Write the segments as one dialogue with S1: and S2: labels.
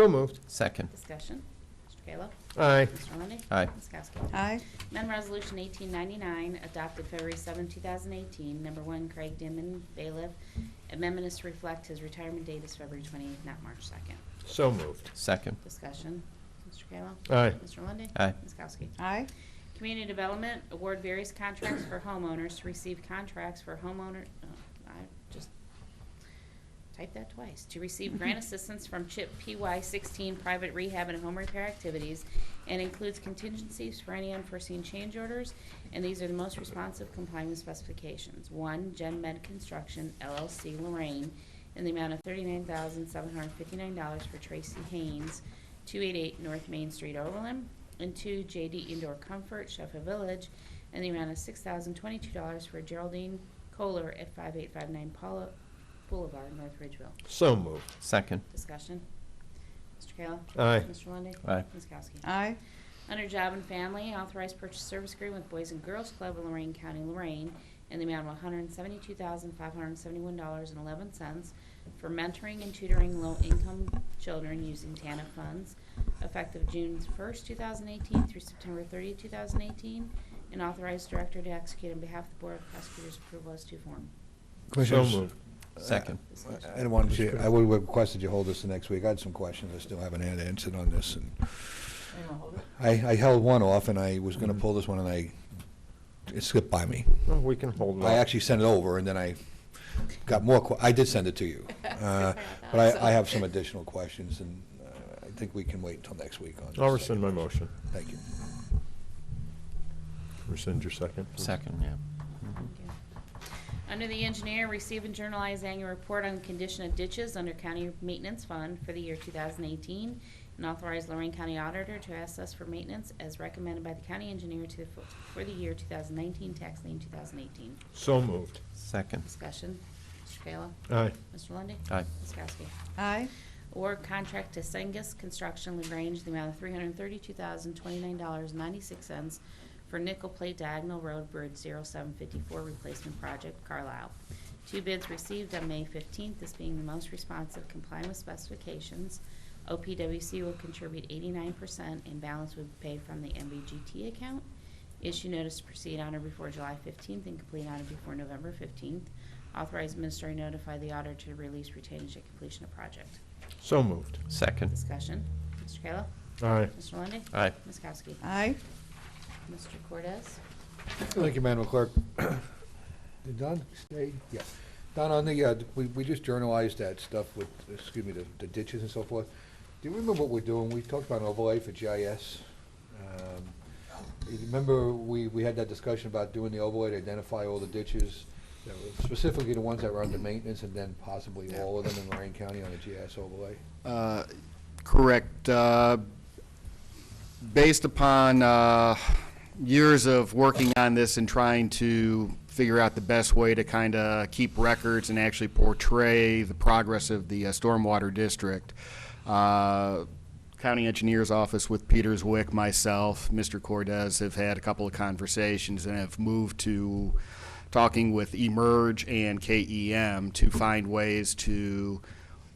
S1: So moved.
S2: Second.
S3: Discussion. Mr. Kayla.
S1: Aye.
S3: Mr. Lundey.
S2: Aye.
S3: Ms. Kowski.
S4: aye,
S3: Amendment Resolution 1899, adopted February 7, 2018. Number one, Craig Dimon, bailiff. Amendment is to reflect his retirement date is February 28th, not March 2nd.
S1: So moved.
S2: Second.
S3: Discussion. Mr. Kayla.
S1: Aye.
S3: Mr. Lundey.
S2: Aye.
S3: Ms. Kowski.
S4: aye,
S3: Community Development, award various contracts for homeowners to receive contracts for homeowner, oh, I just typed that twice, to receive grant assistance from CHIP PY sixteen private rehab and home repair activities, and includes contingencies for any unforeseen change orders, and these are the most responsive complying with specifications. One, Gen Med Construction LLC Lorraine, in the amount of thirty-nine thousand seven hundred fifty-nine dollars for Tracy Haynes, 288 North Main Street, Overland, and two JD Indoor Comfort, Sheffield Village, and the amount of $6,022 for Geraldine Kohler at 5859 Paula Boulevard, North Ridgeville.
S1: So moved.
S2: Second.
S3: Discussion. Mr. Kayla?
S1: Aye.
S3: Mr. Lundey?
S2: Aye.
S3: Ms. Kowski?
S4: aye,
S3: Under Job and Family, authorized purchase service agreement with Boys and Girls Club of Lorraine County, Lorraine, in the amount of $172,571.11 for mentoring and tutoring low-income children using TANF funds, effective June 1st, 2018 through September 30, 2018, and authorized director to execute on behalf of the Board of Prosecutors' approval as to form.
S1: So
S5: Commissioners,
S1: moved.
S2: Second.
S5: I don't want you, I would have requested you hold this the next week. I had some questions. I still haven't had an answer on this. and I, I held one off and I was
S1: Mm-hmm.
S5: going to pull this one and I, it slipped by me.
S1: Well, We can hold
S5: I
S1: on.
S5: actually sent it over and then I got more, que- I did send it to you. Uh, But I, I have some additional questions and uh, I think we can wait until next week on this.
S1: I'll rescind my motion.
S5: Thank you.
S1: Rescind your second. please.
S2: Second, yeah.
S3: Under the engineer, receive and journalize annual report on condition of ditches under county maintenance fund for the year 2018, and authorize Lorraine County Auditor to assess for maintenance as recommended by the county engineer to, the- for the year 2019, tax lien 2018.
S1: So moved.
S2: Second.
S3: Discussion, Mr. Kayla.
S1: Aye.
S3: Mr. Lundey.
S2: Aye.
S3: Ms. Kowski.
S4: aye,
S3: Award contract to Sengus Construction LaGrange, the amount of three hundred thirty-two thousand, twenty-nine dollars, ninety-six cents for nickel plate diagonal road bridge zero seven fifty-four replacement project, Carlisle. Two bids received on May fifteenth, this being the most responsive complying with specifications. OPWC will contribute eighty-nine percent and balance will be paid from the MBGT account. Issue notice to proceed on or before July 15th and complete on or before November 15th. Authorize minister to notify the auditor to release retainage at completion of project.
S1: So moved.
S2: Second.
S3: Discussion. Mr. Kayla?
S1: Aye.
S3: Mr. Lundey?
S2: Aye.
S3: Ms. Kowski?
S4: aye.
S3: Mr. Cortez?
S5: Thank you, Madam Clerk. Did Don stay? Yeah. Don, on the, uh, we, we just journalized that stuff with, excuse me, the- the ditches and so forth. Do you remember what we're doing? We talked about an overlay for GIS. Um, you Remember, we, we had that discussion about doing the overlay to identify all the ditches, that were specifically the ones that were under maintenance and then possibly all of them in Lorraine County on a GIS overlay?
S6: Uh, Correct. Uh, Based upon uh, years of working on this and trying to figure out the best way to kind of keep records and actually portray the progress of the uh, stormwater district, uh, county engineer's office with Peters Wick, myself, Mr. Cordes have had a couple of conversations and have moved to talking with Emerge and KEM to find ways to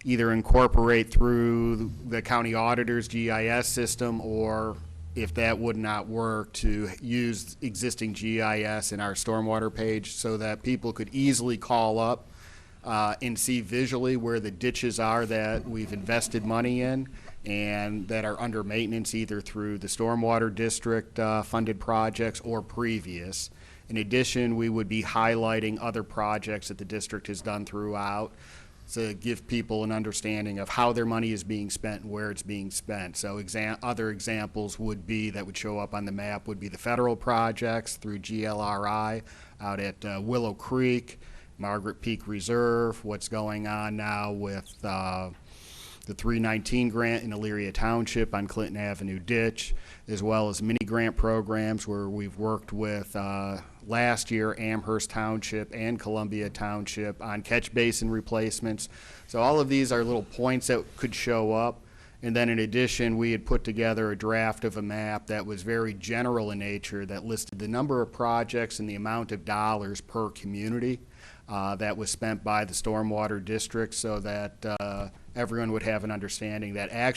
S6: either incorporate through the county auditor's GIS system, or if that would not work, to use existing GIS in our stormwater page so that people could easily call up uh, and see visually where the ditches are that we've invested money in and that are under maintenance either through the stormwater district uh, funded projects or previous. In addition, we would be highlighting other projects that the district has done throughout to give people an understanding of how their money is being spent and where it's being spent. So exam, other examples would be, that would show up on the map, would be the federal projects through GLRI out at uh, Willow Creek, Margaret Peak Reserve, what's going on now with, uh, the 319 grant in Elyria Township on Clinton Avenue Ditch, as well as mini grant programs where we've worked with, uh, last year Amherst Township and Columbia Township on catch basin replacements. So all of these are little points that could show up. And then in addition, we had put together a draft of a map that was very general in nature that listed the number of projects and the amount of dollars per community uh, that was spent by the stormwater district so that uh, everyone would have an understanding that actually